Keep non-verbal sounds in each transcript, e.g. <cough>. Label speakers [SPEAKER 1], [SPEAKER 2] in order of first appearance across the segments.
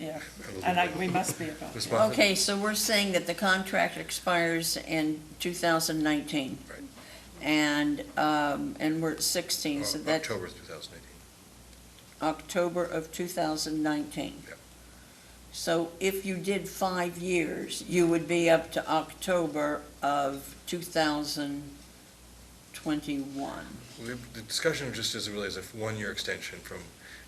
[SPEAKER 1] Yeah, and I, we must be about
[SPEAKER 2] This
[SPEAKER 1] that.
[SPEAKER 2] month.
[SPEAKER 3] Okay, so we're saying that the contract expires in 2019.
[SPEAKER 2] Right.
[SPEAKER 3] And, um, and we're at
[SPEAKER 2] O-
[SPEAKER 3] 16, so that's
[SPEAKER 2] October 2018.
[SPEAKER 3] October of 2019.
[SPEAKER 2] Yep.
[SPEAKER 3] So if you did five years, you would be up to October of 2021.
[SPEAKER 2] We- The discussion just is really as a one-year extension from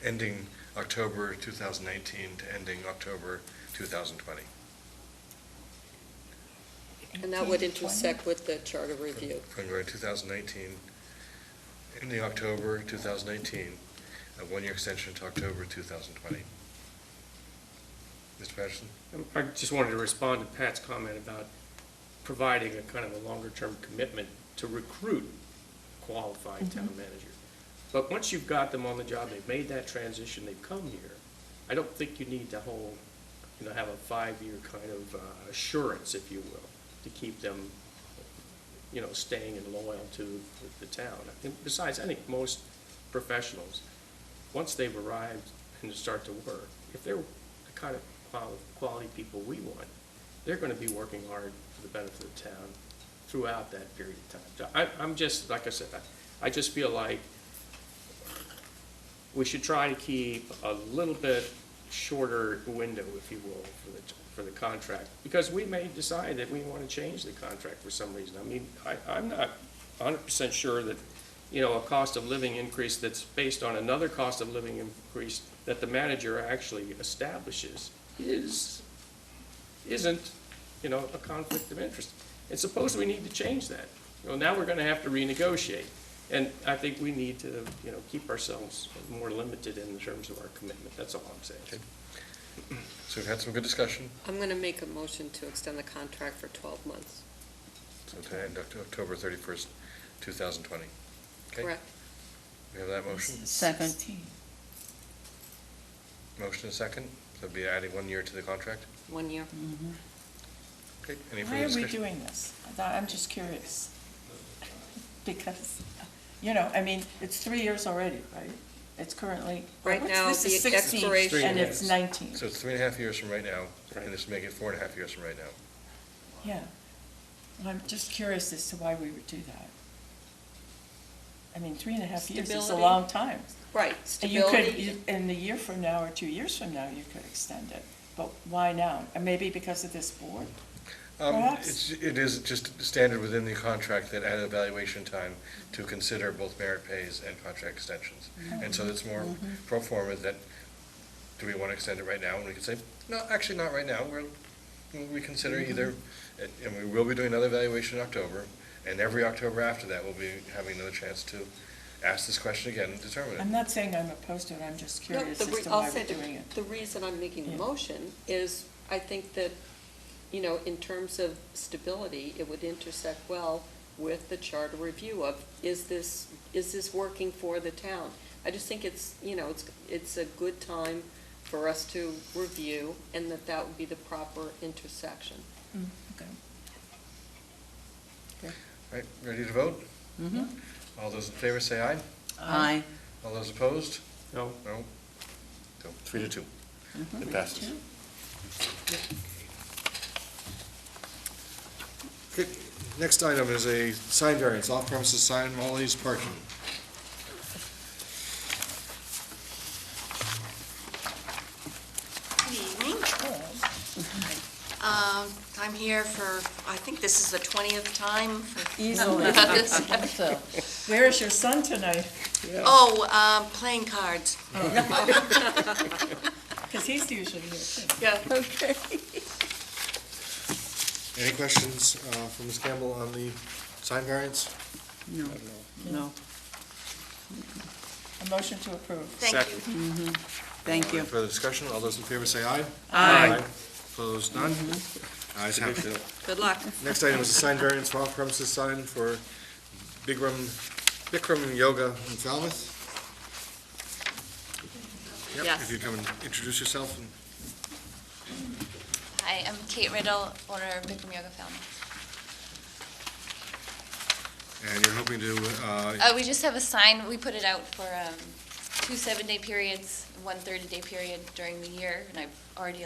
[SPEAKER 2] ending October 2019 to ending October 2020.
[SPEAKER 4] And that would intersect with the charter review.
[SPEAKER 2] From going 2019, ending October 2019, a one-year extension to October 2020. Mr. Patterson?
[SPEAKER 5] I just wanted to respond to Pat's comment about providing a kind of a longer-term commitment to recruit qualified town manager. But once you've got them on the job, they've made that transition, they've come here, I don't think you need to hold, you know, have a five-year kind of uh, assurance, if you will, to keep them, you know, staying and loyal to the town. And Besides, I think most professionals, once they've arrived and start to work, if they're the kind of qual- quality people we want, they're gonna be working hard for the benefit of the town throughout that period of time. So I, I'm just, like I said, I, I just feel like we should try to keep a little bit shorter window, if you will, for the, for the contract. Because we may decide that we wanna change the contract for some reason. I mean, I, I'm not hundred percent sure that you know, a cost of living increase that's based on another cost of living increase that the manager actually establishes is, isn't, you know, a conflict of interest. And suppose we need to change that. Well, now we're gonna have to renegotiate. And I think we need to, you know, keep ourselves more limited in terms of our commitment. That's all I'm saying.
[SPEAKER 2] So we've had some good discussion,
[SPEAKER 4] I'm going to make a motion to extend the contract for 12 months,
[SPEAKER 2] so to end Oct- October 31st, 2020. Okay.
[SPEAKER 4] correct?
[SPEAKER 2] We have that motion?
[SPEAKER 3] Second.
[SPEAKER 2] Motion and second, so it'd be adding one year to the contract.
[SPEAKER 4] One year.
[SPEAKER 2] Okay, any
[SPEAKER 1] Why
[SPEAKER 2] further
[SPEAKER 1] are we
[SPEAKER 2] discussion?
[SPEAKER 1] doing this? I thought- I'm just curious. <laughs> Because, you know, I mean, it's three years already, right? It's currently.
[SPEAKER 4] Right
[SPEAKER 1] what's-
[SPEAKER 4] now,
[SPEAKER 1] this is
[SPEAKER 4] the
[SPEAKER 1] 16,
[SPEAKER 4] expiration
[SPEAKER 1] And it's
[SPEAKER 5] is-
[SPEAKER 1] 19,
[SPEAKER 2] So it's three and a half years from right now,
[SPEAKER 5] Right.
[SPEAKER 2] and this will make it four and a half years from right now.
[SPEAKER 1] yeah. And I'm just curious as to why we would do that. I mean, three and a half years is a
[SPEAKER 4] Stability.
[SPEAKER 1] long time.
[SPEAKER 4] Right,
[SPEAKER 1] And You could,
[SPEAKER 4] stability.
[SPEAKER 1] you- in a year from now or two years from now, you could extend it, but why now? And maybe because of this board?
[SPEAKER 2] Um,
[SPEAKER 1] Perhaps.
[SPEAKER 2] it's- It is just standard within the contract that at evaluation time to consider both merit pays and contract extensions. And so it's more pro forma that, do we want to extend it right now? And we can say, no, actually not right now, we're, we'll reconsider either. And- And we will be doing another evaluation in October, and every October after that, we'll be having another chance to ask this question again and determine it.
[SPEAKER 1] I'm not saying I'm opposed to it, I'm just
[SPEAKER 4] No,
[SPEAKER 1] curious
[SPEAKER 4] the
[SPEAKER 1] as
[SPEAKER 4] re-
[SPEAKER 1] to
[SPEAKER 4] I'll
[SPEAKER 1] why
[SPEAKER 4] say
[SPEAKER 1] we're
[SPEAKER 4] the-
[SPEAKER 1] doing it.
[SPEAKER 4] The reason I'm making
[SPEAKER 1] Yeah.
[SPEAKER 4] the motion is I think that, you know, in terms of stability, it would intersect well with the charter review of, is this, is this working for the town? I just think it's, you know, it's, it's a good time for us to review and that that would be the proper intersection.
[SPEAKER 2] Right, ready to vote? All those in favor say aye.
[SPEAKER 3] Aye.
[SPEAKER 2] All those opposed?
[SPEAKER 5] No?
[SPEAKER 2] No? So, Three to two. It passes. Okay, Next item is a sign variance, off-premises sign, Molly's parking.
[SPEAKER 6] Good evening. Um, I'm here for, I think this is the 20th
[SPEAKER 3] <laughs>
[SPEAKER 6] time for
[SPEAKER 3] Easily. So,
[SPEAKER 1] Where is your son tonight?
[SPEAKER 6] Oh, um, playing cards.
[SPEAKER 1] Because he's usually here too.
[SPEAKER 6] Yeah.
[SPEAKER 2] Any questions uh, from Ms. Campbell on the sign variance?
[SPEAKER 3] no, no,
[SPEAKER 1] A motion to approve.
[SPEAKER 6] Thank you.
[SPEAKER 3] thank you.
[SPEAKER 2] Further discussion, all those in favor say aye. Opposed, none? Ayes have it.
[SPEAKER 4] Good luck.
[SPEAKER 2] Next item is a sign variance for off-premises sign for Bikram, Bikram Yoga in Falmouth. Yep,
[SPEAKER 6] Yes.
[SPEAKER 2] if you come and introduce yourself and
[SPEAKER 7] Hi, I'm Kate Riddle, owner of Bikram Yoga Film.
[SPEAKER 2] And you're hoping to, uh,
[SPEAKER 7] Uh, we just have a sign, we put it out for, um, two seven-day periods, one 30-day period during the year, and I've already